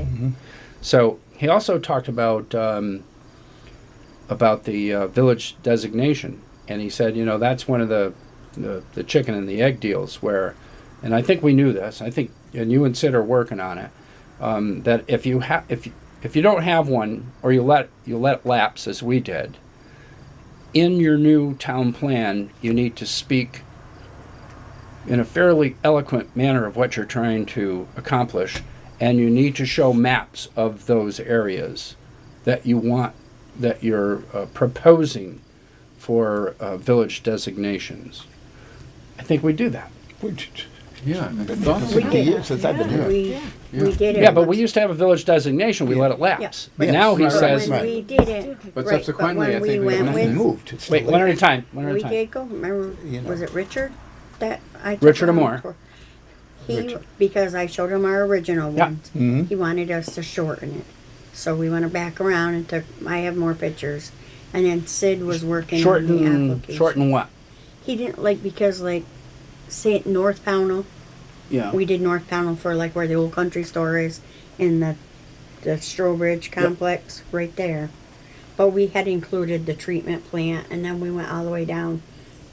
Mm-hmm. So he also talked about um, about the uh, village designation, and he said, you know, that's one of the, the the chicken and the egg deals where, and I think we knew this. I think, and you and Sid are working on it. Um, that if you have if you- if you don't have one, or you let you let lapse as we did, in your new town plan, you need to speak in a fairly eloquent manner of what you're trying to accomplish, and you need to show maps of those areas that you want, that you're uh, proposing for uh, village designations. I think we do that. Yeah, I thought so. We did. years since I've been here. We, we did it. Yeah, but we once- used to have a village designation, we let it lapse. But Yes. now he Right, says, When right. we did it. But right, subsequently, when I think we went went with- Nothing moved. It's wait, still one at there. a time, one at a We time. did go, remember, You know. was it Richard that I? took Richard on Amor. tour? He, Richard. because I showed him our original Yeah. Mm-hmm. one, he wanted us to shorten it. So we went back around and took, I have more pictures, and then Sid was working on the Shorten, application. shorten what? He didn't like, because like, say it North Pownell, Yeah. we did North Pownell for like where the old country store is in the the Strobridge complex right there. But we had included the treatment plant and then we went all the way down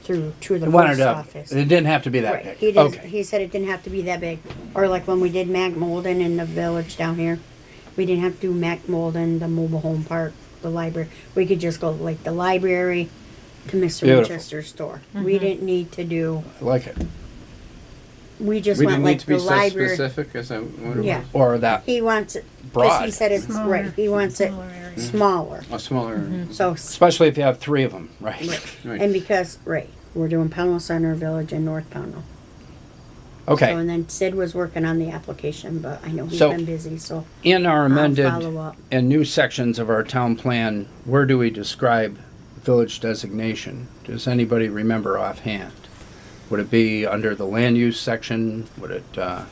through to the He wanted post to, it office. didn't have to be that Right. big. He did Okay. he said it didn't have to be that big. Or like when we did Mac Molden in the village down here. We didn't have to do Mac Molden, the mobile home park, the library. We could just go like the library to Mr. Beautiful. Winchester's store. We didn't need to do I like it. we just We went didn't need like to be the so library. specific as I, what it Yeah. was. Or that, He wants it, because Broad. he said it's, right, he wants it Smaller area. smaller, A smaller, so, especially if you have three of them, right? Right. and because, right, we're doing Pownell Center Village and North Pownell. So, Okay, and then Sid was working on the application, but I know he's So- been busy, so, in our follow amended up. and new sections of our town plan, where do we describe village designation? Does anybody remember offhand? Would it be under the land use section? Would it uh,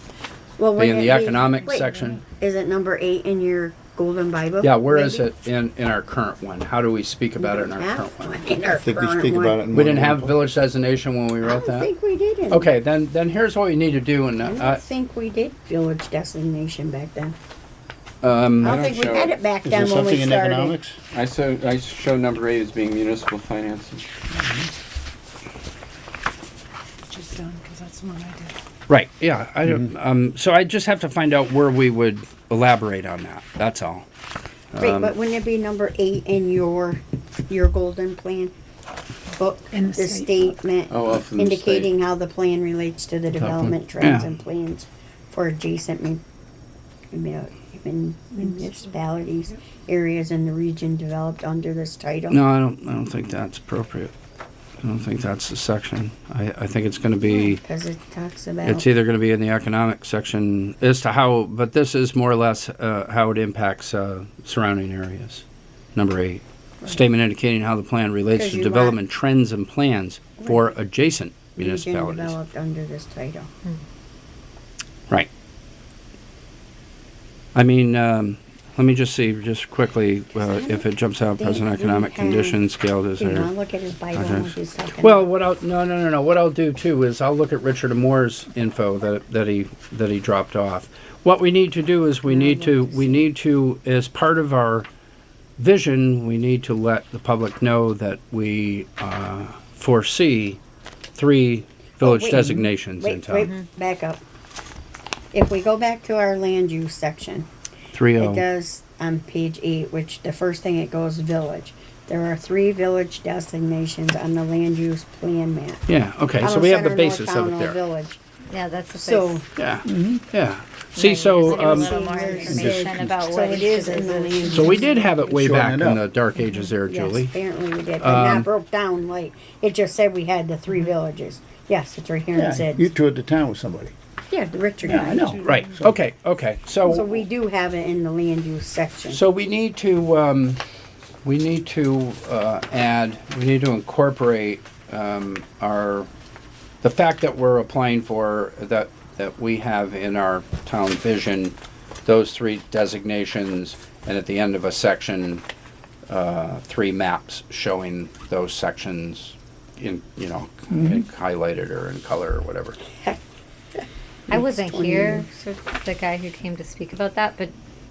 well, be wait. in the economic section? Is it number eight in your golden bible? Yeah, where is Oh, maybe? it in, in our current one? How do we speak We about it in don't our have current one? one in our I think we current speak one. about it. in We one didn't have meeting. village designation when we I wrote don't that? think we didn't. Okay, then, then here's what we need to do and, I uh, don't think we did village designation back then. um, I I don't don't think we show had it. it back Is there then when something we in started. economics? I so, I show number eight as being municipal finances. Just done, because that's the one I did. Right, yeah, I don't, um, so I just have to find out where we would elaborate on that, that's all. Um, Right, but wouldn't it be number eight in your, your golden plan book? In the The state. statement Oh, well, from the state. indicating how the plan relates to the development trends Yeah. and plans for adjacent mun- mun- mun- municipalities, areas in the region developed under this title. No, I don't, I don't think that's appropriate. I don't think that's the section. I, I think it's gonna be, Because it it's talks about, either gonna be in the economic section as to how, but this is more or less, uh, how it impacts, uh, surrounding areas. Number eight, statement indicating how the plan relates 'Cause to you want- development trends and plans for adjacent region municipalities. developed under this title. Right. I mean, um, let me just see, just quickly, uh, if it jumps out, present Think we economic have- conditions scale is Do you want there. to look at his Bible and what he's talking about? Well, what I'll, no, no, no, no, what I'll do too is I'll look at Richard Moore's info that, that he, that he dropped off. What we need to do is we need to, we need to, as part of our vision, we need to let the public know that we, uh, foresee three village Oh, wait. designations in Wait, town. wait, back up. If we go back to our land use section, Three it oh, does on page eight, which the first thing it goes village. There are three village designations on the land use plan map. yeah, okay, so Pownell we have Center, the North basis of it Pownell there. Village. Mm-hmm. Yeah, that's the So, place. Yeah, yeah. See, so, a um, little more information about so what it it is is. in the land use. so we did have it way Shorten back it in the up. dark ages there, Yes, Julie. Um, apparently we did, but not broke down like, it just said we had the three villages. Yes, it's right here and Yeah, you said, toured the town with somebody. yeah, the Richard. Yeah, I Knight. know. Right, okay, okay, So so, we do have it in the land use section. so we need to, um, we need to, uh, add, we need to incorporate, um, our, the fact that we're applying for, that, that we have in our town vision, those three designations, and at the end of a section, uh, three maps showing those sections in, you know, highlighted or in color or whatever. I wasn't here, so the guy who came to speak about that, but